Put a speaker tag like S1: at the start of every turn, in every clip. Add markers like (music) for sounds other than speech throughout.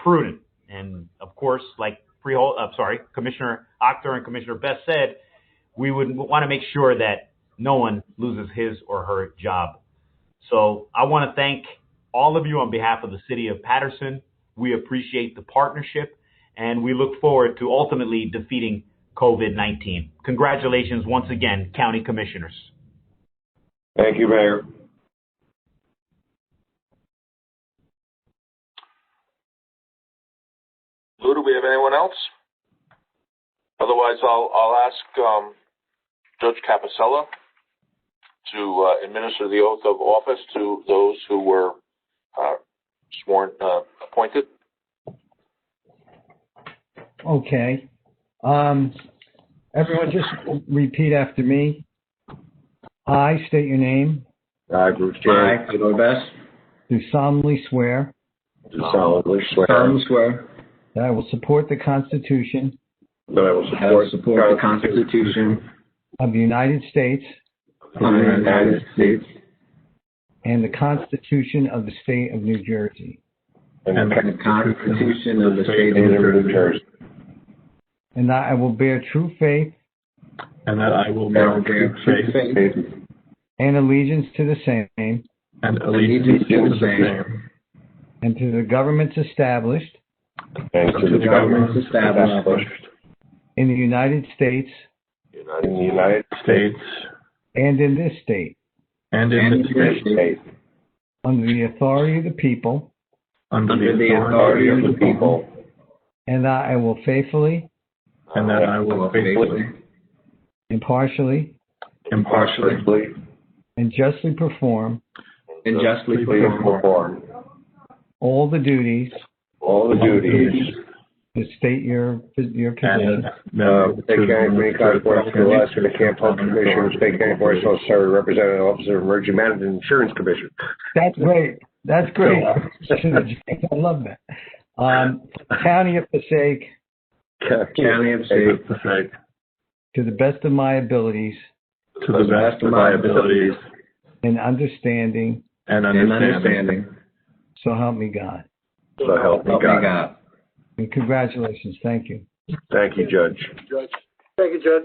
S1: prudent. And of course, like Freehold, I'm sorry, Commissioner Octor and Commissioner Best said, we would want to make sure that no one loses his or her job. So I want to thank all of you on behalf of the city of Patterson. We appreciate the partnership and we look forward to ultimately defeating COVID-19. Congratulations once again, County Commissioners.
S2: Thank you, Mayor.
S3: Lou, do we have anyone else? Otherwise, I'll, I'll ask um, Judge Capicella to uh, administer the oath of office to those who were uh, sworn, uh, appointed.
S4: Okay. Um, everyone just repeat after me. I state your name,
S2: I, Bruce J.
S5: I, Eloy Best,
S4: do solemnly swear
S2: do solemnly swear
S5: solemnly swear
S4: that I will support the Constitution
S2: that I will
S5: that I will
S2: support
S5: support the Constitution
S4: of the United States
S5: of the United States
S4: and the Constitution of the State of New Jersey,
S2: and
S5: and
S2: the
S5: the Constitution of the State
S2: Constitution of New Jersey,
S4: and that I will bear true faith
S6: and that I will
S5: and I will bear
S6: bear true
S5: true
S6: faith
S5: faith
S4: and allegiance to the same
S6: and allegiance to the same
S4: and to the governments established
S2: and to the governments established
S4: in the United States
S2: in the United
S6: states
S4: and in this state
S6: and in
S5: and
S6: the
S5: in
S6: state
S5: the state
S2: States
S4: under the authority of the people,
S6: under
S5: under
S6: the
S5: the
S6: authority of the people,
S5: people,
S4: and that I will faithfully,
S6: and that I
S5: I
S6: will
S5: will
S6: faithfully,
S5: faithfully,
S4: impartially,
S6: impartially,
S2: partially
S4: and justly perform
S2: uh,
S5: and justly perform
S2: perform
S4: all the duties
S2: all the duties
S4: to state your, your
S6: and
S4: position.
S2: Uh,
S6: that
S2: State County Community College Board of Appeals, the Camp Health Commission, State County Board of Social Service Representative, Officer of Emergency Management, and Insurance Commission.
S4: That's great. That's great. (laughs) I love that. Um, county of Passaic,
S5: county and state
S6: to the state,
S4: to the best of my abilities
S6: to the best of my abilities
S4: and understanding,
S6: and
S5: and
S6: understanding.
S5: understanding.
S4: so help me God.
S2: So help me
S5: Help me
S2: God.
S5: God.
S4: And congratulations. Thank you.
S2: Thank you, Judge.
S3: Judge,
S7: Thank you, Judge.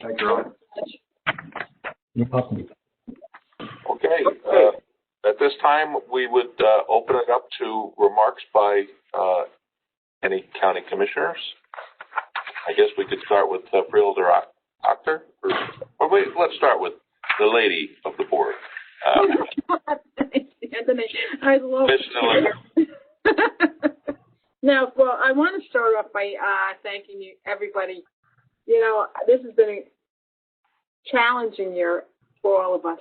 S3: thank you.
S4: You're welcome.
S3: Okay, uh, at this time, we would uh, open it up to remarks by uh, any county commissioners. I guess we could start with uh, Freeholder Oc- Octor, or, or wait, let's start with the lady of the board.
S7: (laughs)
S3: Uh,
S7: Anthony, I love
S3: Miss Miller.
S7: (laughs) Now, well, I want to start off by uh, thanking you, everybody. You know, this has been a challenging year for all of us,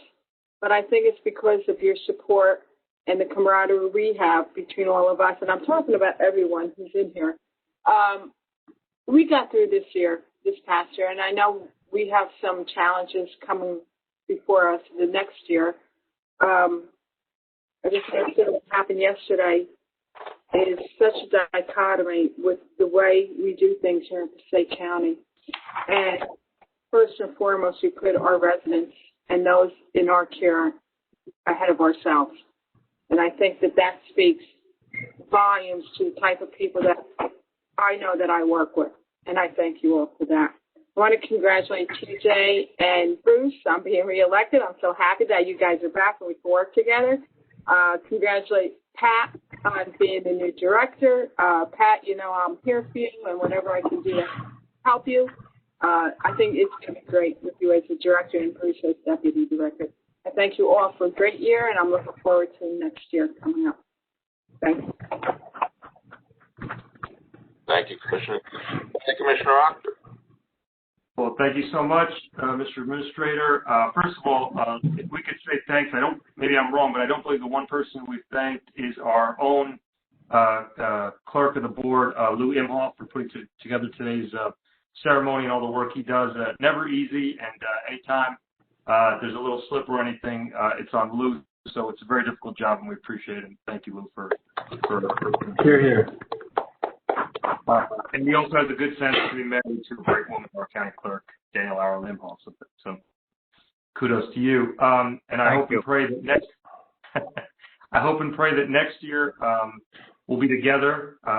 S7: but I think it's because of your support and the camaraderie we have between all of us, and I'm talking about everyone who's in here. Um, we got through this year, this past year, and I know we have some challenges coming before us the next year. Um, I just think that what happened yesterday is such a dichotomy with the way we do things here in Passaic County. And first and foremost, we put our residents and those in our care ahead of ourselves. And I think that that speaks volumes to the type of people that I know that I work with. And I thank you all for that. I want to congratulate TJ and Bruce on being reelected. I'm so happy that you guys are back and we can work together. Uh, congratulate Pat on being the new director. Uh, Pat, you know, I'm here for you and whatever I can do to help you. Uh, I think it's going to be great with you as the director and Bruce as deputy director. I thank you all for a great year and I'm looking forward to next year coming up. Thanks.
S3: Thank you, Commissioner. Thank you, Commissioner Octor.
S8: Well, thank you so much, uh, Mr. Administrator. Uh, First of all, uh, if we could say thanks, I don't, maybe I'm wrong, but I don't believe the one person we've thanked is our own uh, uh, clerk of the board, uh, Lou Imhoff, for putting to- together today's uh, ceremony and all the work he does. Uh, Never easy, and uh, anytime uh, there's a little slip or anything, uh, it's on Lou. So it's a very difficult job, and we appreciate it. Thank you, Lou, for for- for
S6: Here, here.
S8: uh, and he also has a good sense to be married to a great woman, our county clerk, Daniel Ara Limhall. So, so kudos to you. Um, and I hope and pray that (laughs) next, I hope and pray that next year um, we'll be together. Uh,